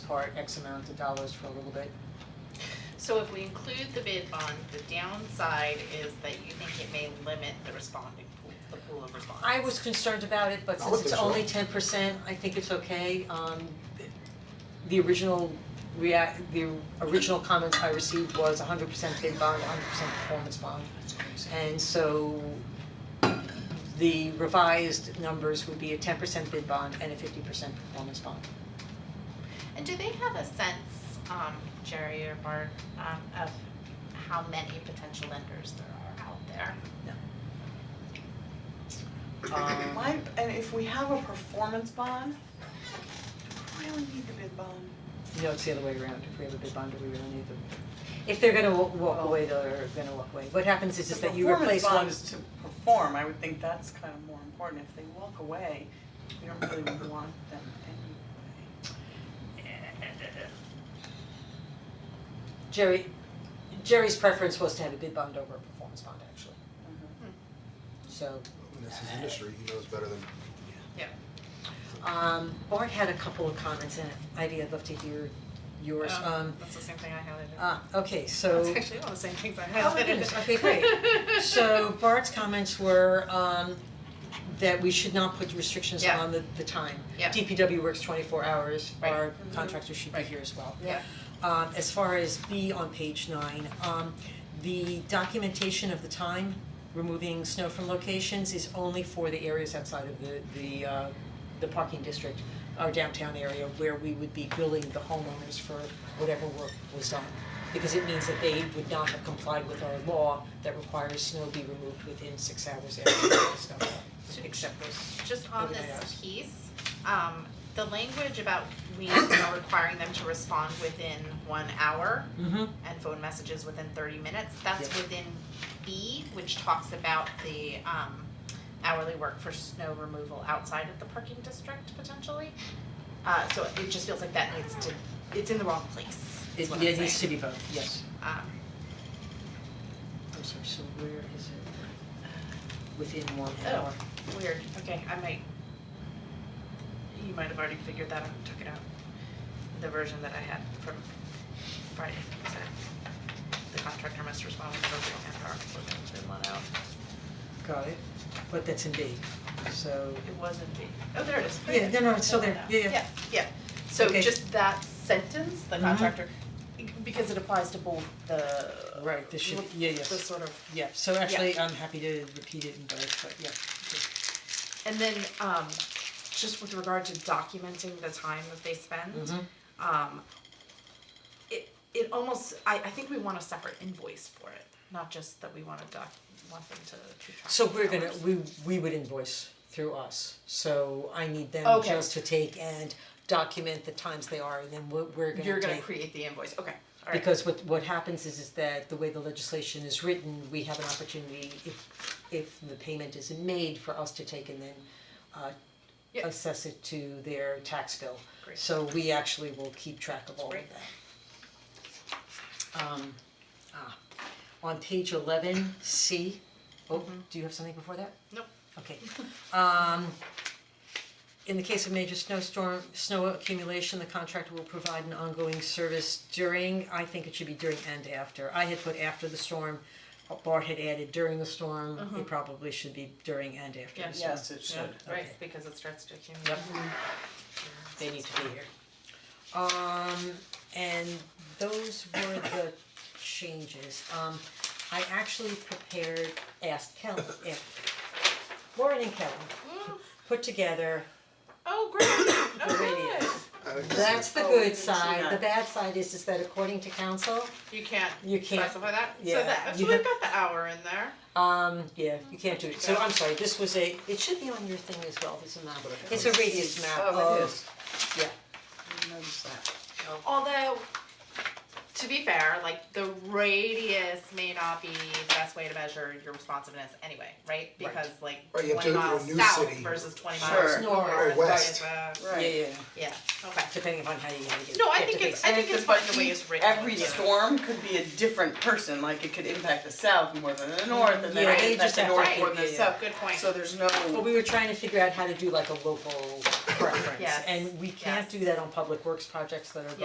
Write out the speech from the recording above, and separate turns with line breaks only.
apart X amount of dollars for a little bit.
So if we include the bid bond, the downside is that you think it may limit the responding pool, the pool of respondents.
I was concerned about it, but
I would
since it's
think so.
only ten percent, I think it's okay, um th- the original react, the original comments I received was hundred percent bid bond, hundred percent performance bond. And so the revised numbers would be a ten percent bid bond and a fifty percent performance bond.
And do they have a sense, um, Jerry or Bart, um, of how many potential lenders there are out there?
Um,
Why, and if we have a performance bond, why do we need the bid bond?
No, it's the other way around, if we have a bid bond, do we really need them? If they're gonna wa- walk away, they're gonna walk away, what happens is is that you replace one.
The performance bond is to perform, I would think that's kind of more important, if they walk away, we don't really want them anyway.
Jerry, Jerry's preference was to have a bid bond over a performance bond, actually, so,
This is industry, he knows better than.
Yeah.
um, Bart had a couple of comments, and Ivy, I'd love to hear yours, um,
That's the same thing I highlighted.
ah, okay, so.
That's actually all the same things I highlighted.
Oh my goodness, okay, great. So Bart's comments were um that we should not put restrictions
Yeah.
on the the time.
Yeah.
DPW works twenty four hours,
Right. Mm-hmm.
our contractors should be
Right.
here as well.
Yeah.
Um as far as B on page nine, um the documentation of the time, removing snow from locations is only for the areas outside of the the uh the parking district, our downtown area where we would be billing the homeowners for whatever work was done. Because it means that they would not have complied with our law that requires snow be removed within six hours after the snow, except those.
Just on
Everybody
this
else.
piece, um, the language about we are requiring them to respond within one hour
Mm-hmm.
and phone messages within thirty minutes, that's
Yeah.
within B, which talks about the um hourly work for snow removal outside of the parking district potentially. Uh, so it just feels like that needs to, it's in the wrong place, is what I'm
It needs to
saying.
be both, yes.
Um,
I'm sorry, so where is it? Uh, Within one
Oh.
hour.
Weird, okay, I might. You might have already figured that out and took it out, the version that I had from Friday, so. The contractor must respond within half hour, we're gonna let out,
Got it. But that's in B, so.
it wasn't the, oh, there it is.
Yeah, no, no, it's still there. Yeah, yeah.
Yeah, yeah, so
Okay.
just that sentence, the
Mhm.
contractor, because it applies to both the.
Right, this should- yeah, yes.
The sort of
Yeah, so actually, I'm happy to repeat it in both, but yeah.
And then um just with regard to documenting the time that they spend,
Mhm.
um it it almost I I think we want a separate invoice for it, not just that we want to doc want them to keep track
So
of
we're gonna,
hours.
we we would invoice through us, so I need them
Okay.
just to take and document the times they are, and then we're we're gonna take.
You're gonna create the invoice, okay, alright,
Because what what happens is is that the way the legislation is written, we have an opportunity if if the payment isn't made for us to take and then uh
Yeah.
assess it to their tax bill.
Great.
So we actually will keep track of all of
Great.
that. Um ah, on page eleven, C, oh,
Mm-hmm.
do you have something before that?
nope,
Okay. Um, in the case of major snowstorm, snow accumulation, the contractor will provide an ongoing service during, I think it should be during and after. I had put after the storm, Bart had added during the storm, it probably should be during and after
Yeah.
the storm.
Yes, it
yeah,
should.
right,
Okay.
because it starts to accumulate.
Yep. They need to be here. Um, and those were the changes. Um, I actually prepared, asked Kelly, if Lauren and Kelly put together
Oh, great,
the
oh,
radios.
I think this
That's
is-
the
Oh, we
good
didn't see
side, the
that.
bad side is is that according to council,
good. You can't
You can't-
specify that, so
yeah,
that, so
you
we've
have-
got the hour in there,
um, yeah, you can't do it, so I'm sorry, this was a, it should be on your thing as well, this is a map, it's a radius map of.
Oh, it is.
Yeah,
I noticed that.
Oh.
Although, to be fair, like the radius may not be the best way to measure your responsiveness anyway, right? Because like
Right, you have
twenty
to look at
miles
a new
south
city.
versus twenty
Sure.
miles north.
Or
right,
west.
uh,
yeah,
Right.
yeah,
Yeah, okay.
depending upon how you wanna get,
No, I
get
think
the
it's,
base.
I
And
think
if
it's
the
fun the way
heat-
it's written.
Every
yeah.
storm could be a different person, like it could impact the south more than the north, and then
Yeah,
it
they
could impact
just
the
have
north
to-
more than the
yeah,
south.
Oh, Good point.
So there's no.
But we were trying to figure out how to do like a local preference,
Yes.
and we can't
Yes.
do that on public works projects that are